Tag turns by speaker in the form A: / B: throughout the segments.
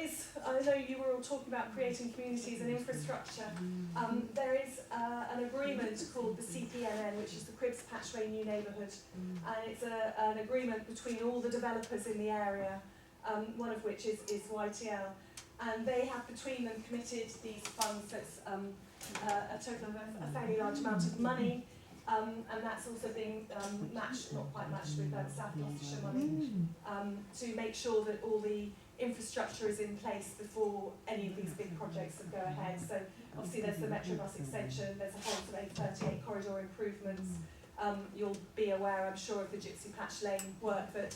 A: is, I know you were all talking about creating communities and infrastructure. Um, there is uh, an agreement called the CPNN, which is the Cribs Patchway New Neighbourhood, and it's a, an agreement between all the developers in the area, um, one of which is, is YTL. And they have between them committed these funds, that's um, uh, a total of a, a fairly large amount of money, um, and that's also being um, matched, not quite matched with uh, South Gloucestershire money um, to make sure that all the infrastructure is in place before any of these big projects that go ahead. So obviously there's the Metrobus extension, there's a whole sort of 38 corridor improvements. Um, you'll be aware, I'm sure, of the Gypsy Patch Lane work that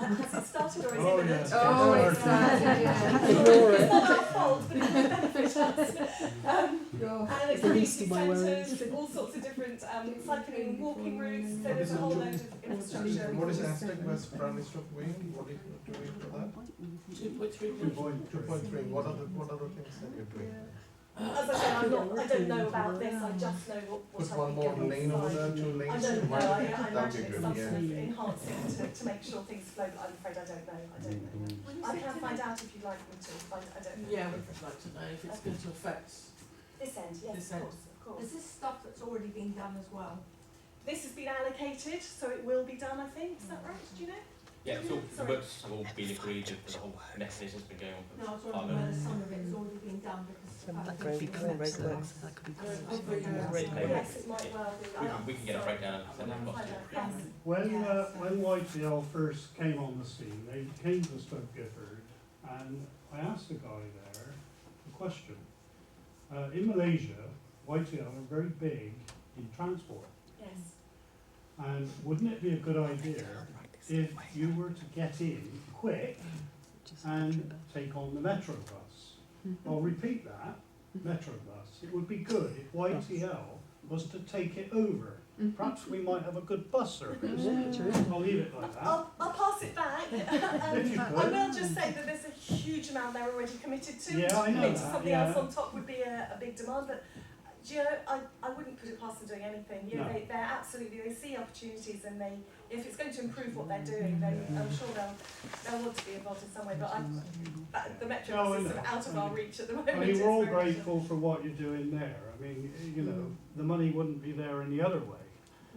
A: uh, has it started or is
B: Oh,
A: imminent.
B: yes.
C: Oh,
B: Yeah.
C: it's started, yeah.
D: Ignore
A: It's not our fault, but it's benefit us. Um,
C: Go.
A: and it's
D: At least
A: community
D: in my words.
A: centres, all sorts of different um, cycling and walking routes, so
B: What
A: there's
B: is
A: a whole
B: it?
A: load of infrastructure.
B: What is Aztec West Prime Minister of Wing? What are you doing for that? Two point, two point three, what are the, what are the things that you're doing?
A: As I said, I'm not, I don't know about this, I just know what, what
B: Put
A: I
B: one
A: can
B: more
A: get
B: lane over there, two
A: I
B: lanes.
A: don't know, I, I imagine
B: That'd be good,
A: it's some sort
B: yeah.
A: of enhancing to, to make sure things flow, but I'm afraid I don't know, I don't know. I can find out if you'd like me to, but I don't know.
E: Yeah, we'd like to know if it's going to affect.
A: This end, yes,
E: This
A: of
E: end.
A: course, of course.
C: Is this stuff that's already been done as well?
A: This has been allocated, so it will be done, I think, is that right, do you know?
F: Yeah, so the
A: Sorry.
F: works have all been agreed and the whole message has been going
C: No, I
F: on
C: was
F: for five
C: wondering whether
F: minutes.
C: some of it's already been done because. I
D: That
C: think
D: could be
C: we
D: cool,
C: met
D: road
C: the
D: works,
C: last-
D: that could be
C: Yeah,
D: cool.
C: I'll bring
D: Yeah.
C: that.
D: Red
F: Okay.
D: label.
A: Yes, it might well be.
F: We
A: I'll-
F: can, we can get a
A: sorry.
F: breakdown and send that
A: I'll
F: across to
A: find
F: you.
A: out, yes.
G: When,
C: Yeah,
G: uh,
C: so-
G: when YTL first came on the scene, they came to Stoke Gifford, and I asked the guy there a question. Uh, in Malaysia, YTL are very big in transport,
A: Yes,
G: and wouldn't it be a good idea if you were to get in quick and take on the Metro bus? I'll repeat that, Metro bus. It would be good if YTL was to take it over.
A: Mm-hmm.
G: Perhaps we might have a good bus service. I'll leave it like that.
A: I'll, I'll pass it back. Um,
G: If you
A: I
G: could.
A: will just say that there's a huge amount they're already committed to.
G: Yeah, I know
A: Committing
G: that,
A: something
G: yeah.
A: else on top would be a, a big demand, but uh, do you know, I, I wouldn't put it past them doing anything. You know,
G: No.
A: they, they're absolutely, they see opportunities and they, if it's going to improve what they're doing, then I'm sure they'll, they'll want to be involved in some way, but I, that, the metro
G: No, I
A: is sort of
G: know.
A: out of our reach at the moment.
G: I mean, we're all
A: It's very- Mm.
G: grateful for what you're doing there. I mean, you know, the money wouldn't be there any other way.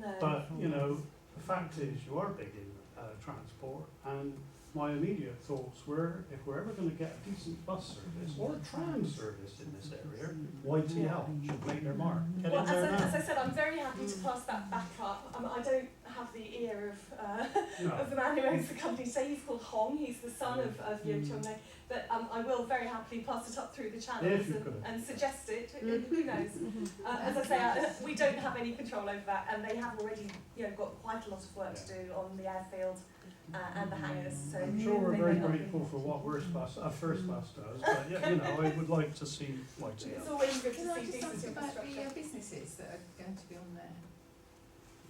A: No.
G: But, you know, the fact is you are big in uh, transport and my immediate thoughts were if we're ever going to get a decent bus service or a tram service in this area, YTL should make their mark. Get
A: Well,
G: in
A: as
G: there
A: I, as I
G: now.
A: said, I'm very happy to pass that back up. Um, I don't have the ear of, uh,
G: No.
A: of the man who owns the company, so he's called Hong, he's the son of, of
G: Mm.
A: Yeo Chung Lei. But um, I will very happily pass it up through the channels
G: If you
A: and,
G: could.
A: and suggest it,
C: Mm-hmm.
A: who knows. Uh, as I say, I, we don't have any control over that and they have already you know, got quite a lot of work to do on the airfield uh, and the hangars. So
G: I'm sure we're
A: they
G: very
A: may not be-
G: grateful for what Worst Bus, uh, First Bus does, but yeah, you know, I would like to see
A: It's
G: YTL.
A: always good to
C: Can I
A: see
C: just ask
A: decent
C: about the
A: infrastructure
C: uh, businesses that are going to be on there? uh,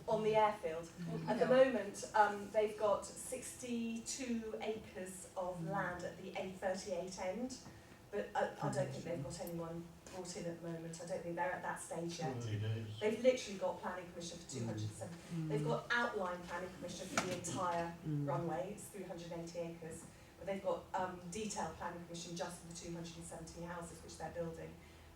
A: on the airfield. At the
C: No.
A: moment, um, they've got 62 acres of land at the A38 end, but uh, I, I don't think they've got anyone brought in at the moment. I don't think they're at that stage yet.
G: Early days.
A: They've literally got planning permission for 207. They've got outline planning permission for the entire
C: Mm.
A: runway, it's 380 acres, but they've got um, detailed planning permission just for the 270 houses which they're building,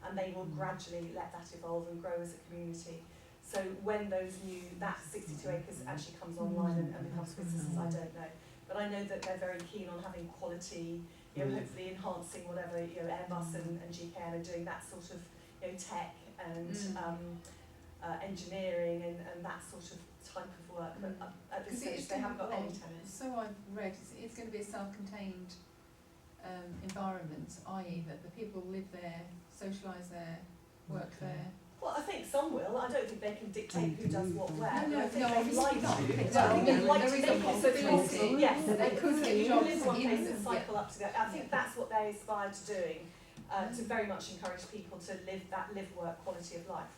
A: and they will
C: Mm.
A: gradually let that evolve and grow as a community. So when those new, that 62
C: Mm.
A: acres actually comes online and, and becomes businesses, I don't know. But I know that they're very keen on having quality, you know,
G: Mm.
A: hopefully enhancing whatever, you know, Airbus and, and GKN are doing, that sort of, you know, tech and
C: Mm.
A: um, uh, engineering and, and that sort of type of work. But uh, at this
C: Because it
A: stage,
C: is
A: they haven't got any
C: difficult.
A: tenants.
C: So I've read, it's, it's going to be a self-contained um, environment, i.e. that the people live there, socialise there, work there.
A: Well, I think some will. I don't think they can dictate who does what where. but
C: No,
A: I
C: no,
A: think
C: no,
A: they'd
C: obviously
A: like
C: not.
A: to.
C: But
A: I
C: I
A: think
C: mean,
A: they'd like
C: there
A: to
C: is a
A: make it so they
C: possibility
A: yes, that
C: they could get
A: you
C: jobs
A: live one
C: in-
A: place and
C: yeah.
A: cycle up to the I think
C: Yeah. Mm.
A: that's what they're inspired to doing. Uh, to very much encourage people to live that live work quality of life.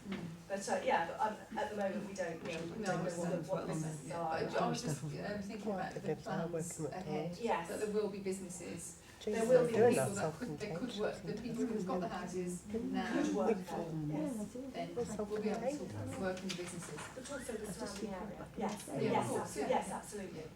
A: But uh, yeah, but, um, at the moment we don't, we don't
C: No,
A: know
C: it's
A: what,
C: not-
A: the- what
C: it's
A: businesses
C: not-
A: are.
C: but I was just um,
D: Stuff.
C: thinking about the
D: They've started
C: plans
D: working at
C: ahead,
D: Coles.
A: Yes.
C: that there will be businesses, there
D: Jesus,
C: will
D: I'm
C: be people
D: doing
C: that could, they
D: self-contained.
C: could work, the people who've got the houses now
A: Good work
C: will
A: there, yes.
C: then will be able to work in the businesses.
A: But also the surrounding area.
D: Yeah,
A: Yes,
C: of
A: yes,
C: course,
A: absolutely,
C: yeah.
A: yes, absolutely.